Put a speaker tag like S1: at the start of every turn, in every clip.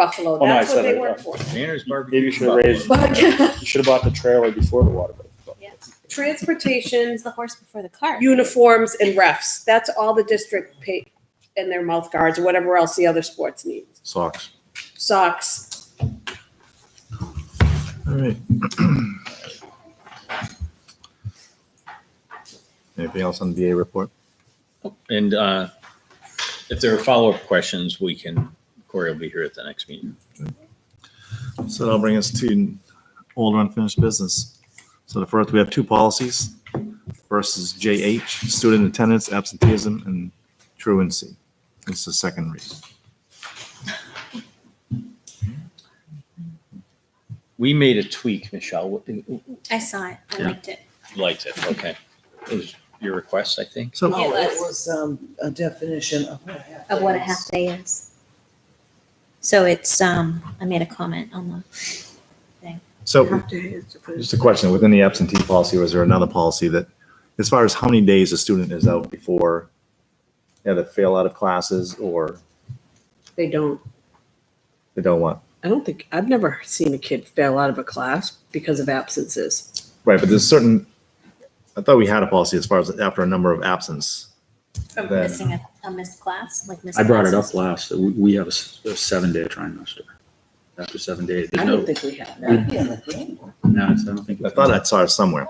S1: Buffalo,
S2: Oh, no, I
S1: that's what
S2: said
S1: they
S2: it,
S1: work
S2: uh,
S1: for.
S3: Tanner's
S2: Maybe
S3: barbecue.
S2: you should have raised, you
S1: But
S2: should have bought the trailer before the water break.
S1: transportation,
S4: It's the horse before the cart.
S1: uniforms and refs, that's all the district pay and their mouth guards or whatever else the other sports need,
S3: Socks.
S1: socks.
S3: All right. Anything else on the VA report?
S5: And uh, if there are follow-up questions, we can, Corey will be here at the next meeting.
S3: So that'll bring us to older unfinished business. So the first, we have two policies. First is JH, student attendance, absenteeism, and truancy. It's the second read.
S5: We made a tweak, Michelle, You
S4: I saw it. I
S3: Yeah.
S4: liked it.
S5: liked it, okay. It was your request, I think.
S3: So
S6: No,
S4: Yes.
S6: Oh, it was um, a definition of what a half.
S4: Of what a
S6: day is.
S4: half day is. So it's um I made a comment on the
S3: so
S6: Half day is different.
S3: just a question, within the absentee policy, was there another policy that, as far as how many days a student is out before they either fail out of classes or
S7: They don't.
S3: they don't want?
S7: I don't think I've never seen a kid fail out of a class because of absences.
S3: Right, but there's certain, I thought we had a policy as far as after a number of absence. Then-
S4: missing a, a missed class, like missed
S8: I brought it up
S4: classes.
S8: last, we, we have a s- a seven-day trimester. After seven days,
S7: I
S8: there's
S7: don't
S8: no,
S7: think we have that.
S6: That'd be on the green.
S8: no, it's- I don't think.
S3: I thought I saw it somewhere.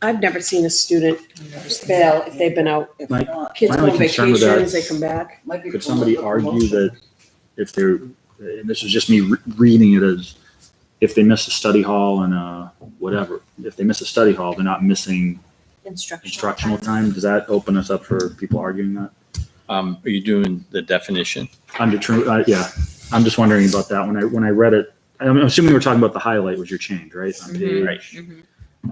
S1: I've never seen a student fail if they've been out.
S6: If
S8: Mike?
S6: not,
S1: Kids
S8: My
S1: go
S8: only
S1: on
S8: concern with
S1: vacations,
S8: that-
S1: they come back.
S6: might be
S8: Could somebody
S6: pulling up a motion.
S8: argue that if they're, and this is just me re- reading it as, if they miss a study hall and, uh, whatever, if they miss a study hall, they're not missing
S4: Instructional.
S8: instructional
S4: class.
S8: time? Does that open us up for people arguing that?
S5: Um, Are you doing the definition?
S8: Under true, uh, yeah, I'm just wondering about that. When I, when I read it, I'm assuming we're talking about the highlight was your change, right? On page-
S5: Right.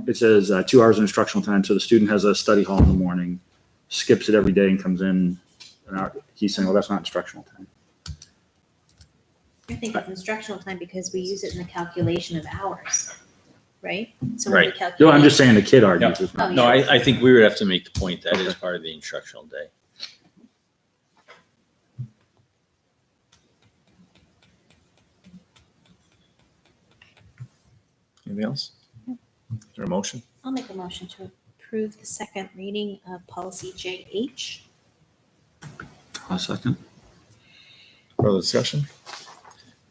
S8: It says uh, two hours of instructional time, so the student has a study hall in the morning, skips it every day and comes in an hour. He's saying, well, that's not instructional time.
S4: I think it's instructional time because we use it in the calculation of hours, right? So when
S5: Right.
S4: we
S8: No, I'm
S4: calculate-
S8: just saying the kid argues. it's
S4: Oh,
S8: not.
S5: No, I, I think we would have to make the point that is part of the instructional day.
S3: Anything else? Is there a motion?
S4: I'll make a motion to approve the second reading of policy JH.
S8: A second.
S3: Further discussion?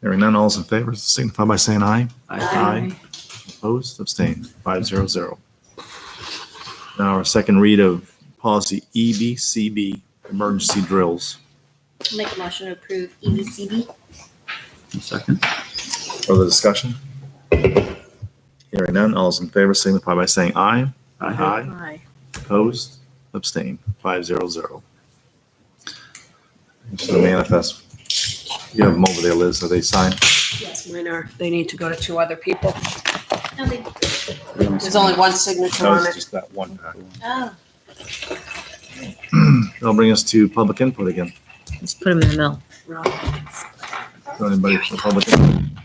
S3: Hearing none, all's in favor, signify by saying aye.
S4: Aye.
S3: Opposed, abstained, five zero zero. Now our second read of policy E EBCB, emergency drills.
S4: I'll make a motion to approve E EBCD.
S8: A second.
S3: Further discussion? Hearing none, all's in favor, signify by saying aye.
S7: Aye.
S3: Opposed, abstained, five zero zero. So the manifest, you have them over there, Liz, are they signed?
S1: Yes, mine are. They need to go to two other people.
S4: No, Oh, they,
S1: There's only one signature
S3: No,
S1: on
S3: it's
S1: it.
S3: just that one pack.
S4: oh,
S3: That'll bring us to public input again.
S7: Let's put them in the mill.
S3: Is there Anybody from the public? input?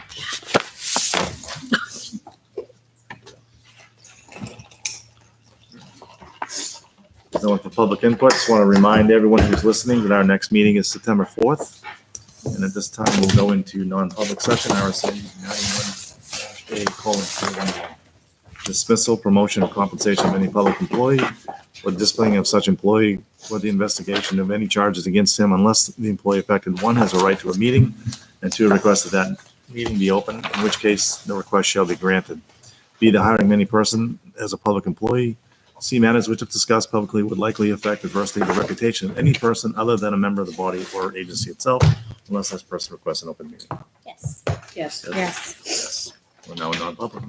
S3: No one for public input. Just want to remind everyone who's listening that our next meeting is September 4th. And at this time, we'll go into non-public session, RSA 91-A colon 311. Dismissal, promotion, or compensation of any public employee or displaying of such employee for the investigation of any charges against him unless the employee affected, one, has a right to a meeting, and two, requests that that meeting be open, in which case the request shall be granted. Be the hiring of any person as a public employee, see matters which if discussed publicly would likely affect adversely the reputation of any person other than a member of the body or agency itself, unless this person requests an open meeting.
S4: yes.
S1: Yes.
S4: Yes.
S3: Yes, we're now in non-public.